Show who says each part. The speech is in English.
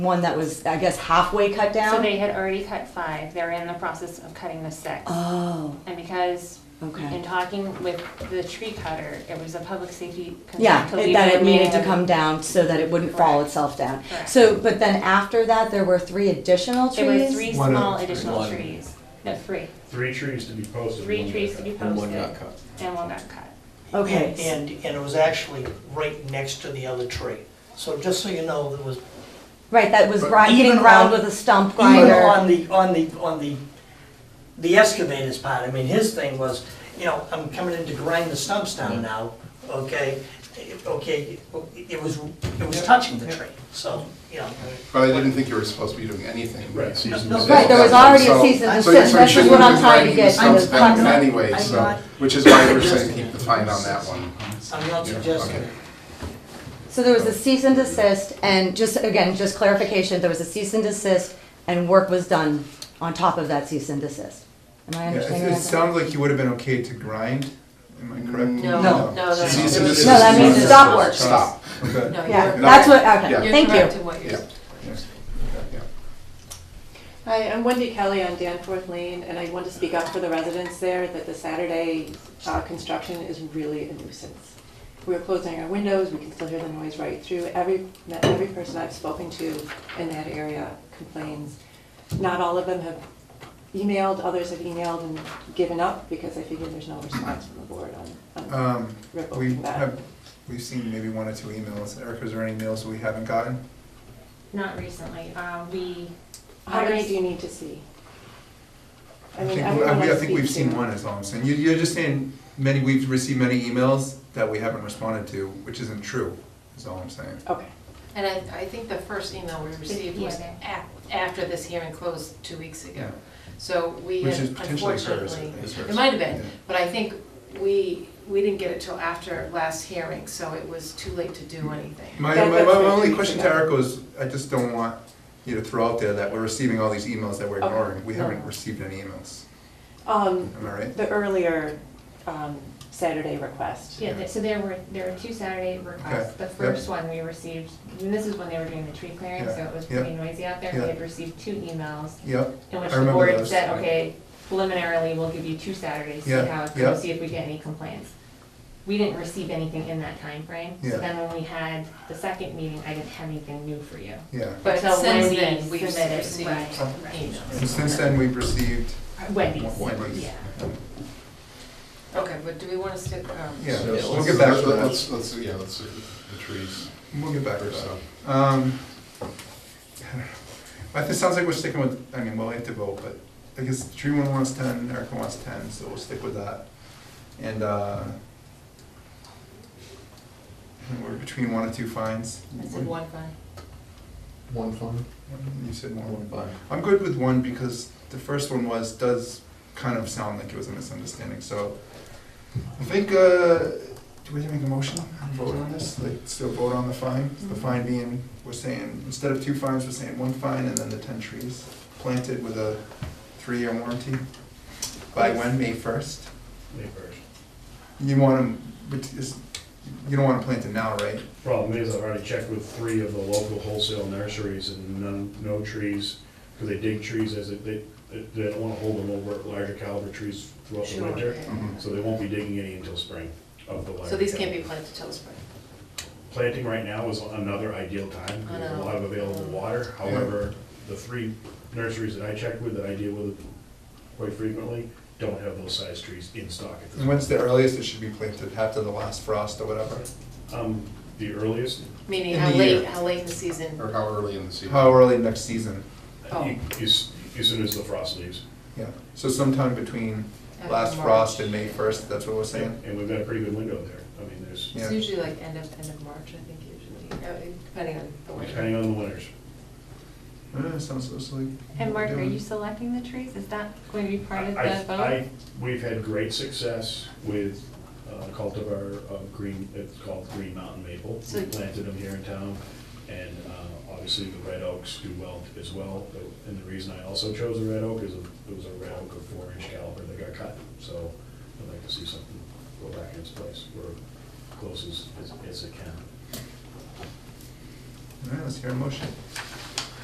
Speaker 1: one that was, I guess, halfway cut down.
Speaker 2: So they had already cut five, they're in the process of cutting the sixth.
Speaker 1: oh,
Speaker 2: And because in
Speaker 1: okay.
Speaker 2: talking with the tree cutter, it was a public safety concern
Speaker 1: Yeah,
Speaker 2: to
Speaker 1: it-
Speaker 2: leave
Speaker 1: that
Speaker 2: the
Speaker 1: it needed
Speaker 2: remaining
Speaker 1: to
Speaker 2: of-
Speaker 1: come down so that it wouldn't fall
Speaker 2: Correct.
Speaker 1: itself down.
Speaker 2: Correct.
Speaker 1: So, but then after that, there were three additional trees?
Speaker 2: There were three
Speaker 3: One of
Speaker 2: small
Speaker 3: the three.
Speaker 2: additional
Speaker 4: One.
Speaker 2: trees, no, three,
Speaker 3: Three trees to be posted.
Speaker 2: three trees to be
Speaker 4: And one
Speaker 2: posted,
Speaker 4: got cut.
Speaker 2: and one got cut.
Speaker 1: Okay.
Speaker 5: And, and it was actually right next to the other tree. So just so you know, there was,
Speaker 1: Right, that was
Speaker 3: But
Speaker 1: grind,
Speaker 5: even
Speaker 1: getting ground
Speaker 5: on-
Speaker 1: with a stump
Speaker 5: even
Speaker 1: grinder.
Speaker 5: on the, on the, on the, the excavator's part, I mean, his thing was, you know, I'm coming in to grind the stumps down now, okay? Okay, it was, it was touching the tree, so, you know.
Speaker 6: But I didn't think you were supposed to be doing anything.
Speaker 3: Right.
Speaker 6: Season
Speaker 5: No,
Speaker 6: was-
Speaker 5: right, there
Speaker 1: was already a
Speaker 6: So-
Speaker 1: cease and
Speaker 6: so-
Speaker 1: desist.
Speaker 6: so you
Speaker 1: That's just
Speaker 6: shouldn't
Speaker 1: what
Speaker 6: have
Speaker 1: I'm
Speaker 6: been
Speaker 1: trying to
Speaker 6: binding
Speaker 1: get
Speaker 6: stumps
Speaker 1: to.
Speaker 6: back in
Speaker 5: I'm
Speaker 6: Anyway,
Speaker 5: not-
Speaker 6: so, which is why we're saying keep the fine on that one.
Speaker 5: I'm not
Speaker 6: Yeah,
Speaker 5: suggesting
Speaker 6: okay.
Speaker 5: it.
Speaker 1: So there was a cease and desist, and just, again, just clarification, there was a cease and desist, and work was done on top of that cease and desist. Am I
Speaker 3: Yeah,
Speaker 1: understanding
Speaker 3: It it
Speaker 1: that? correctly?
Speaker 3: sounds like you would have been okay to grind, am I correct?
Speaker 7: No,
Speaker 1: No.
Speaker 7: no, no.
Speaker 6: Cease and
Speaker 7: no.
Speaker 6: desist.
Speaker 1: No, that means
Speaker 6: is-
Speaker 1: stop work.
Speaker 6: Stop.
Speaker 3: Okay.
Speaker 7: No,
Speaker 1: Yeah,
Speaker 7: you're,
Speaker 1: that's what,
Speaker 6: Yeah.
Speaker 1: okay,
Speaker 7: you're
Speaker 1: thank
Speaker 7: correct
Speaker 1: you.
Speaker 7: in what
Speaker 6: Yeah.
Speaker 7: you're.
Speaker 3: Yes.
Speaker 6: Yeah.
Speaker 8: Hi, I'm Wendy Kelly on Danforth Lane, and I want to speak up for the residents there that the Saturday uh, construction is really a nuisance. We're closing our windows, we can still hear the noise right through. Every, not every person I've spoken to in that area complains. Not all of them have emailed, others have emailed and given up because they figure there's no response from the board on, on
Speaker 3: Um, we
Speaker 8: revoking that.
Speaker 3: have, we've seen maybe one or two emails. Erica, is there any emails we haven't gotten?
Speaker 2: Not recently, uh, we,
Speaker 8: How many do you need to see? I mean,
Speaker 3: think-
Speaker 8: everyone
Speaker 3: we- I
Speaker 8: I
Speaker 3: think we've
Speaker 8: speak to-
Speaker 3: seen one, is all I'm saying. You, you're just saying many, we've received many emails that we haven't responded to, which isn't true, is all I'm saying.
Speaker 8: Okay.
Speaker 7: And I, I think the first email we received was
Speaker 2: Yeah.
Speaker 7: a- after this hearing closed two weeks ago.
Speaker 3: Yeah.
Speaker 7: So we
Speaker 3: Which
Speaker 7: had
Speaker 3: is potentially hers,
Speaker 7: unfortunately,
Speaker 3: is hers.
Speaker 7: it might have been,
Speaker 3: Yeah.
Speaker 7: but I think we, we didn't get it till after last hearing, so it was too late to do anything.
Speaker 3: My,
Speaker 8: That-
Speaker 3: my, my
Speaker 8: that's what
Speaker 3: only
Speaker 8: we
Speaker 3: question to
Speaker 8: figured out.
Speaker 3: Erica is, I just don't want you to throw out there that we're receiving all these emails that we're
Speaker 8: Okay.
Speaker 3: ignoring. We haven't
Speaker 8: No.
Speaker 3: received any emails,
Speaker 8: Um,
Speaker 3: am I right?
Speaker 8: the earlier um, Saturday request.
Speaker 2: yeah, th- so there were, there were two Saturday requests.
Speaker 3: Okay,
Speaker 2: The first one we received, and this is when they were doing the tree clearing,
Speaker 3: Yeah,
Speaker 2: so it was
Speaker 3: yeah,
Speaker 2: pretty noisy out there.
Speaker 3: yeah.
Speaker 2: We had received two emails
Speaker 3: Yep,
Speaker 2: in which
Speaker 3: I
Speaker 2: the
Speaker 3: remember
Speaker 2: board
Speaker 3: those,
Speaker 2: said,
Speaker 3: right.
Speaker 2: okay, preliminarily, we'll give you two Saturdays, see
Speaker 3: Yeah,
Speaker 2: how it
Speaker 3: yeah.
Speaker 2: goes, see if we get any complaints. We didn't receive anything in that timeframe,
Speaker 3: Yeah.
Speaker 2: so then when we had the second meeting, I didn't have anything new for you.
Speaker 3: yeah.
Speaker 7: But
Speaker 2: So when
Speaker 7: since
Speaker 2: we
Speaker 7: then, we've
Speaker 2: submitted,
Speaker 7: received
Speaker 2: right, right.
Speaker 3: And
Speaker 7: emails.
Speaker 3: since then, we've received
Speaker 2: Wendy's.
Speaker 3: Wendy's.
Speaker 2: Yeah.
Speaker 7: Okay, but do we want to stick, um,
Speaker 3: Yeah,
Speaker 6: So
Speaker 3: we'll
Speaker 6: let's-
Speaker 3: get back to
Speaker 6: Let's,
Speaker 3: that.
Speaker 6: let's, yeah, let's, the trees
Speaker 3: We'll get back to
Speaker 6: first
Speaker 3: that.
Speaker 6: up.
Speaker 3: Um, I don't know. I think it sounds like we're sticking with, I mean, we'll have to vote, but I guess Tree one wants ten, Erica wants ten, so we'll stick with that. And, uh, and we're between one and two fines.
Speaker 7: I said one fine.
Speaker 4: One fine?
Speaker 3: You said one.
Speaker 4: One fine.
Speaker 3: I'm good with one because the first one was, does kind of sound like it was a misunderstanding, so I think, uh, do we have to make a motion and vote on this? Like, still vote on the fine? The fine being, we're saying, instead of two fines, we're saying one fine and then the ten trees planted with a three-year warranty? By when, May first?
Speaker 9: May first.
Speaker 3: You want them, but is, you don't wanna plant it now, right?
Speaker 9: Problem is, I've already checked with three of the local wholesale nurseries and none, no trees, because they dig trees as it, they, they don't wanna hold them over larger caliber trees throughout the
Speaker 7: Sure.
Speaker 9: winter.
Speaker 7: yeah.
Speaker 9: Mm-hmm. So they won't be digging any until spring of the larger.
Speaker 7: So these can't
Speaker 9: caliber.
Speaker 7: be planted till spring.
Speaker 9: Planting right now is another ideal time,
Speaker 7: I
Speaker 9: because there's a
Speaker 7: know.
Speaker 9: lot of available water.
Speaker 3: Yeah.
Speaker 9: However, the three nurseries that I checked with, that I deal with quite frequently, don't have those size trees in stock at this
Speaker 3: And
Speaker 9: point.
Speaker 3: when's the earliest it should be planted, after the last frost or whatever?
Speaker 9: Um, the earliest,
Speaker 7: Meaning
Speaker 3: In
Speaker 7: how
Speaker 3: the
Speaker 7: late,
Speaker 3: year.
Speaker 7: how late in the season?
Speaker 6: Or how early in the season?
Speaker 3: How early next season?
Speaker 7: Oh.
Speaker 9: you- you s- as soon as the frost leaves.
Speaker 3: Yeah, so sometime between
Speaker 7: After
Speaker 3: last
Speaker 7: March.
Speaker 3: frost and May first, that's what we're saying?
Speaker 9: And we've got a pretty good window there. I mean, there's,
Speaker 3: Yeah.
Speaker 7: It's usually like end of, end of March, I think usually, uh, depending on the
Speaker 9: depending
Speaker 7: winter.
Speaker 9: on the winters.
Speaker 3: Uh, sounds sounds like.
Speaker 2: And Mark, are
Speaker 3: doing-
Speaker 2: you selecting the trees? Is that going to be part of
Speaker 9: I-
Speaker 2: the vote?
Speaker 9: I- We've had great success with uh, cultivar of green, it's called Green Mountain Maple. We
Speaker 7: So-
Speaker 9: planted them here in town, and uh, obviously the red oaks do well as well. And the reason I also chose the red oak is it was a red oak of four-inch caliber that got cut. So I'd like to see something go back in its place, or close as, as- as it can.
Speaker 3: All right, let's hear a motion.